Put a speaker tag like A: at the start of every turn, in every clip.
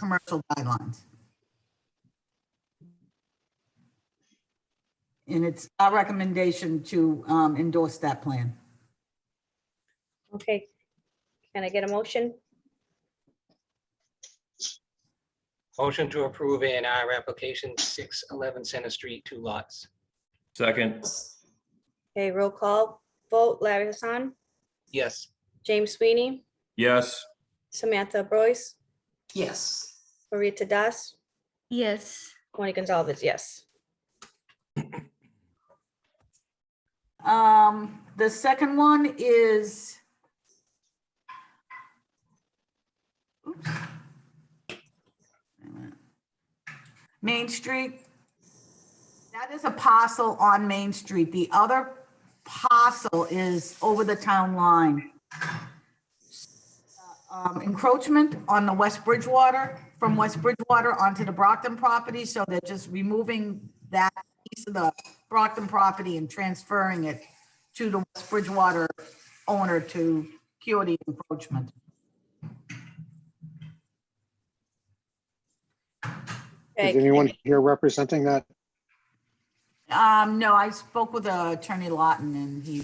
A: commercial guidelines. And it's our recommendation to um, endorse that plan.
B: Okay. Can I get a motion?
C: Motion to approve A and R application six eleven Center Street, two lots.
D: Second,
B: Okay, roll call vote. Larry Hassan,
C: Yes,
B: James Sweeney,
D: yes.
B: Samantha Boyce,
E: Yes.
B: Marita Das,
F: Yes.
B: Tony Gonzalez, yes.
A: Um, the second one is. Oops. Main Street. That is a parcel on Main Street. The other parcel is over the town line. Um, encroachment on the West Bridgewater, from West Bridgewater onto the Brockton property, so they're just removing that piece of the Brockton property and transferring it to the West Bridgewater owner to cure the encroachment.
B: Okay,
G: Is anyone here representing that?
A: Um, no, I spoke with uh, Attorney Lawton and he,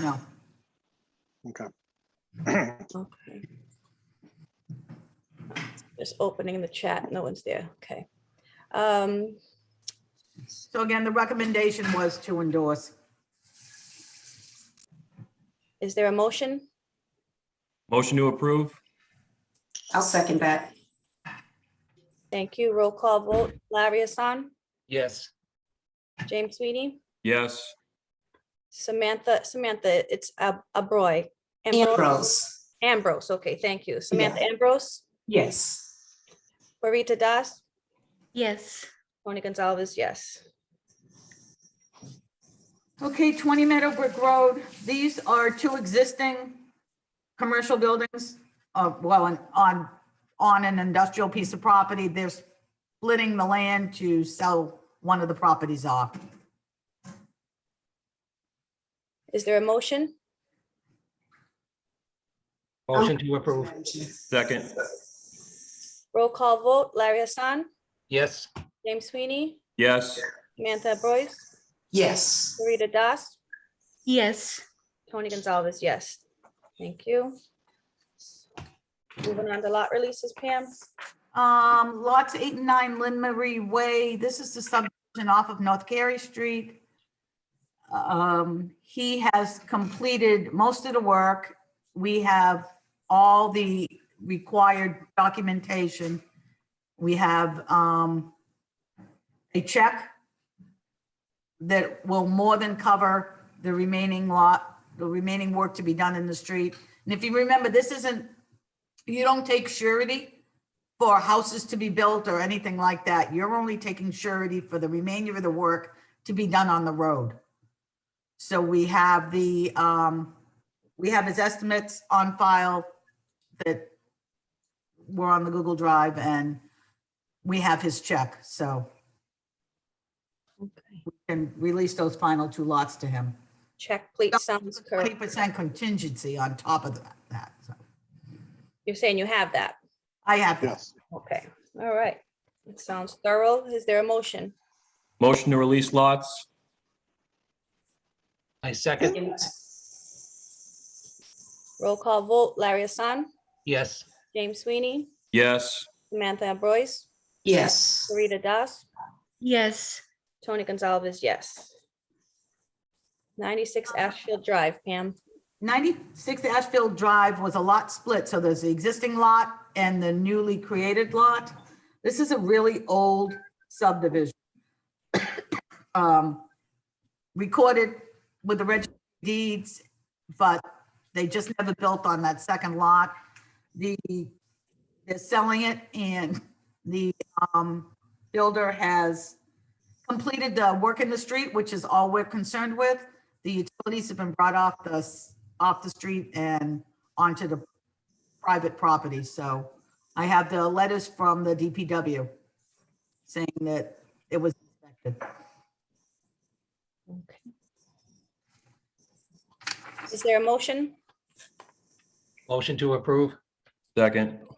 A: no,
G: Okay.
B: Okay. Just opening the chat, no one's there, okay. Um,
A: so again, the recommendation was to endorse.
B: is there a motion?
D: Motion to approve?
E: I'll second that.
B: Thank you, roll call vote, Larry Hassan,
C: yes,
B: James Sweeney,
D: Yes.
B: Samantha, Samantha, it's Ab- Abroy.
E: Ambrose.
B: Ambrose, okay, thank you, Samantha Ambrose,
E: Yes.
B: Marita Das,
F: Yes.
B: Tony Gonzalez, yes.
A: Okay, 20 Meadowbrook Road, these are two existing commercial buildings, uh, well, on- on, on an industrial piece of property. They're splitting the land to sell one of the properties off.
B: Is there a motion?
C: motion to approve,
D: Second,
B: Roll call vote, Larry Hassan,
C: yes,
B: James Sweeney,
D: yes.
B: Samantha Boyce,
E: Yes.
B: Marita Das,
F: Yes.
B: Tony Gonzalez, yes. Thank you. Moving on to lot releases, Pam.
A: Um, lots eight and nine Lynn Marie Way. This is the subdivision off of North Carey Street. Um, he has completed most of the work. We have all the required documentation. We have, um, a check that will more than cover the remaining lot, the remaining work to be done in the street. And if you remember, this isn't, you don't take surety for houses to be built or anything like that. You're only taking surety for the remainder of the work to be done on the road. So we have the, um, we have his estimates on file that were on the Google Drive and we have his check, so we can release those final two lots to him.
B: Check, please, sounds
A: Twenty
B: correct.
A: percent contingency on top of that- that, so
B: You're saying you have that?
A: I have that.
G: Yes.
B: Okay, all right. It sounds thorough. Is there a motion?
D: Motion to release lots?
C: I second,
B: Roll call vote, Larry Hassan,
C: yes,
B: James Sweeney,
D: Yes.
B: Samantha Boyce,
E: Yes.
B: Marita Das,
F: Yes.
B: Tony Gonzalez, yes. 96 Ashfield Drive, Pam.
A: 96 Ashfield Drive was a lot split, so there's the existing lot and the newly created lot. This is a really old subdivision. Um, Recorded with the registry of deeds, but they just never built on that second lot. The, they're selling it and the um, builder has completed the work in the street, which is all we're concerned with. The utilities have been brought off the s- off the street and onto the private property. So I have the letters from the DPW saying that it was inspected.
B: Is there a motion?
C: motion to approve,
D: Second,